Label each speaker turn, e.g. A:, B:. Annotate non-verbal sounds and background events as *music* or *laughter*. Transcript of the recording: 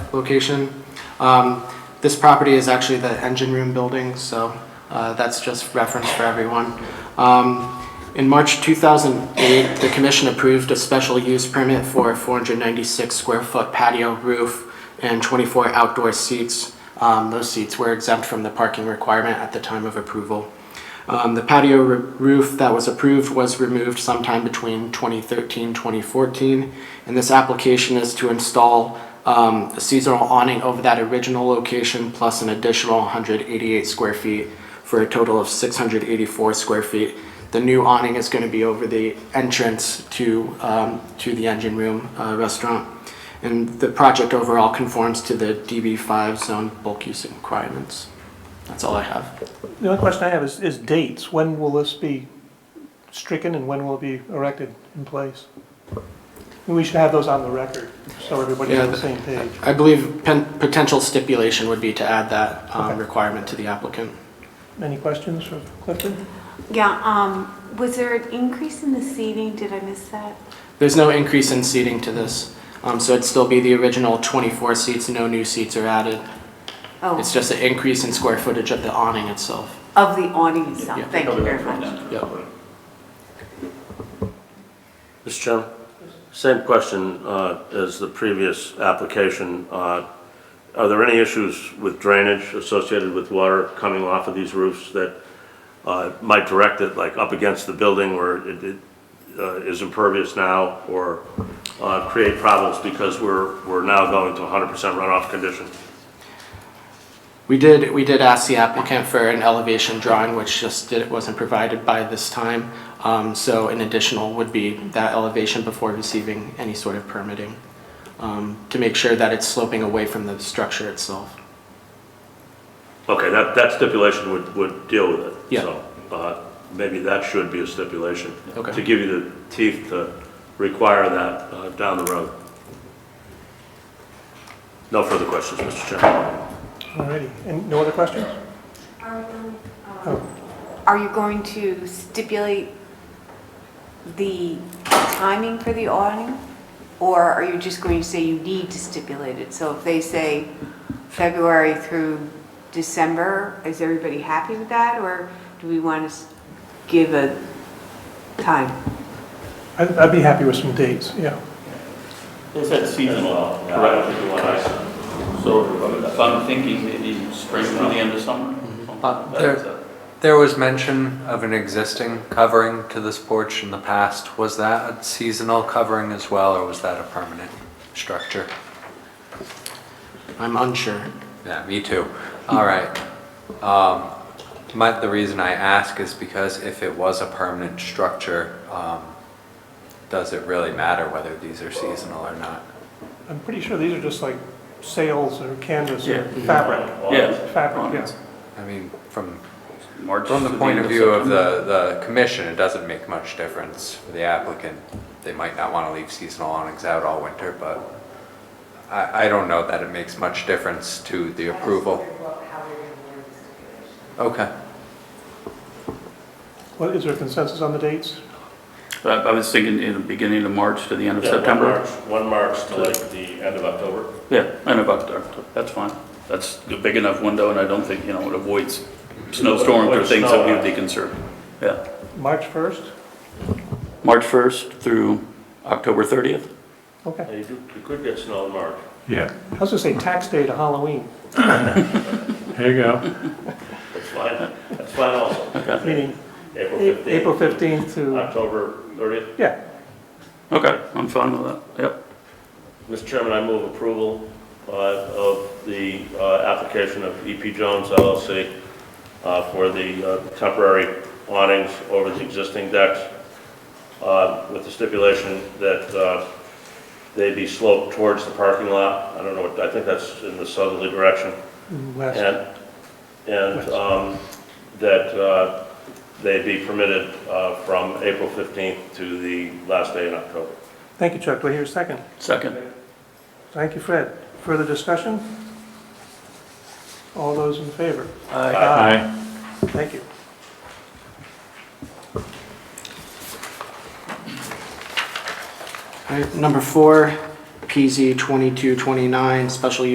A: location. Um, This property is actually the engine room building, so uh, that's just reference for everyone. Um, In March 2008, the commission approved a special use permit for a 496-square-foot patio roof and 24 outdoor seats. Um, Those seats were exempt from the parking requirement at the time of approval. Um, The patio r- roof that was approved was removed sometime between 2013, 2014, and this application is to install um, a seasonal awning over that original location plus an additional 188 square feet for a total of 684 square feet. The new awning is going to be over the entrance to, um, to the engine room uh, restaurant. And the project overall conforms to the DB5 zone bulk use requirements. That's all I have.
B: The only question I have is, is dates. When will this be stricken and when will it be erected in place? We should have those on the record, so everybody's on the
A: Yeah,
B: same page.
A: I believe pen- potential stipulation would be to add that um,
B: Okay.
A: requirement to the applicant.
B: Any questions for Clifton?
C: Yeah, um, was there an increase in the seating? Did I miss that?
A: There's no increase in seating to this, um, so it'd still be the original 24 seats, no new seats are added.
C: Oh,
A: It's just an increase in square footage of the awning itself.
C: of the awning itself.
A: Yeah.
C: Thank you very much.
A: Yep.
D: Mr. Chairman, same question uh, as the previous application. Uh, Are there any issues with drainage associated with water coming off of these roofs that uh, might direct it like up against the building where it it, uh, is impervious now or uh, create problems because we're, we're now going to 100% runoff condition?
A: We did, we did ask the applicant for an elevation drawing, which just did- wasn't provided by this time. Um, So an additional would be that elevation before receiving any sort of permitting, um, to make sure that it's sloping away from the structure itself.
D: Okay, that, that stipulation would, would deal with it.
A: Yeah.
D: So, uh, maybe that should be a stipulation.
A: Okay.
D: To give you the teeth to require that uh, down the road. No further questions, Mr. Chairman.
B: Alrighty, and no other questions? Oh,
C: Are you going to stipulate the timing for the awning? Or are you just going to say you need to stipulate it? So if they say February through December, is everybody happy with that? Or do we want to s- give a time?
B: I'd, I'd be happy with some dates, yeah.
E: They said seasonal, correct? So if I'm thinking maybe spring through the end of summer.
F: Uh,
E: something like
F: there-
E: that.
F: There was mention of an existing covering to this porch in the past. Was that a seasonal covering as well, or was that a permanent structure?
A: I'm unsure.
F: Yeah, me too. All right. Um, My, the reason I ask is because if it was a permanent structure, um, does it really matter whether these are seasonal or not?
B: I'm pretty sure these are just like sails or canvas or
E: Yeah.
B: fabric.
E: Yeah.
B: Fabric, yes.
F: I mean, from,
E: March
F: from
E: to
F: the point
E: end
F: of view of
E: September.
F: the, the commission, it doesn't make much difference for the applicant. They might not want to leave seasonal awnings out all winter, but I, I don't know that it makes much difference to the approval. Okay.
B: Well, is there consensus on the dates?
E: But I I was thinking in the beginning of March to the end of September.
D: One March to like the end of October.
E: Yeah, end of October, that's fine. That's a big enough window and I don't think, you know, it avoids snowstorms or
D: Avoids
E: things
D: snow
E: that we would
D: out.
E: be concerned. Yeah,
B: March 1st?
E: March 1st through October 30th.
B: Okay.
D: You could- you could get snow in March.
G: Yeah,
B: I was gonna say tax day to Halloween,
G: there you go.
D: That's *laughs* fine. That's fine also.
B: meaning
D: April
B: A- April 15th to,
D: October 30th.
B: yeah.
E: Okay, I'm fine with that, yep.
D: Mr. Chairman, I move approval uh, of the uh, application of EP Jones LLC uh, for the uh, temporary awnings over the existing decks uh, with the stipulation that uh, they be sloped towards the parking lot. I don't know, what I think that's in the southerly direction.
B: West.
D: And, and um, that uh, they be permitted uh, from April 15th to the last day in October.
B: Thank you, Chuck. Do I hear a second?
E: Second.
B: Thank you, Fred. Further discussion? All those in favor?
G: Aye.
B: Thank you.
A: All right, number four, PZ 2229, special use